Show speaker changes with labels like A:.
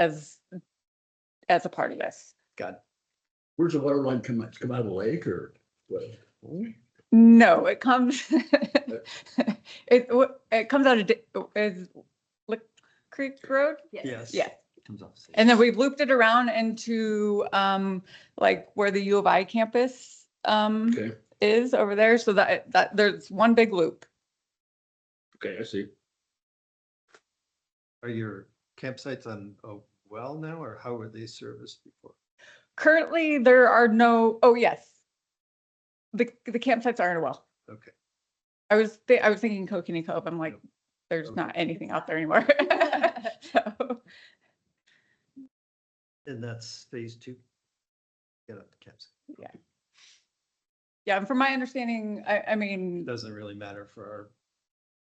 A: as, as a part of this.
B: God.
C: Where's the water line come, out? It's come out of the lake or what?
A: No, it comes, it, w- it comes out of, Di- is Lick Creek Road?
B: Yes.
A: Yeah.
B: Comes off the stage.
A: And then we've looped it around into, um, like where the U of I campus, um,
C: Okay,
A: is over there. So that, that, there's one big loop.
C: okay, I see.
B: Are your campsites on a well now, or how were they serviced before?
A: Currently, there are no, oh, yes. The, the campsites aren't a well.
B: Okay.
A: I was, thi- I was thinking Kokanee Cove. I'm like,
B: Yep.
A: there's
B: Okay.
A: not anything out there anymore. So,
B: And that's phase two? Get up the campsite.
A: yeah, and from my understanding, I, I
B: It
A: mean,
B: doesn't really matter for our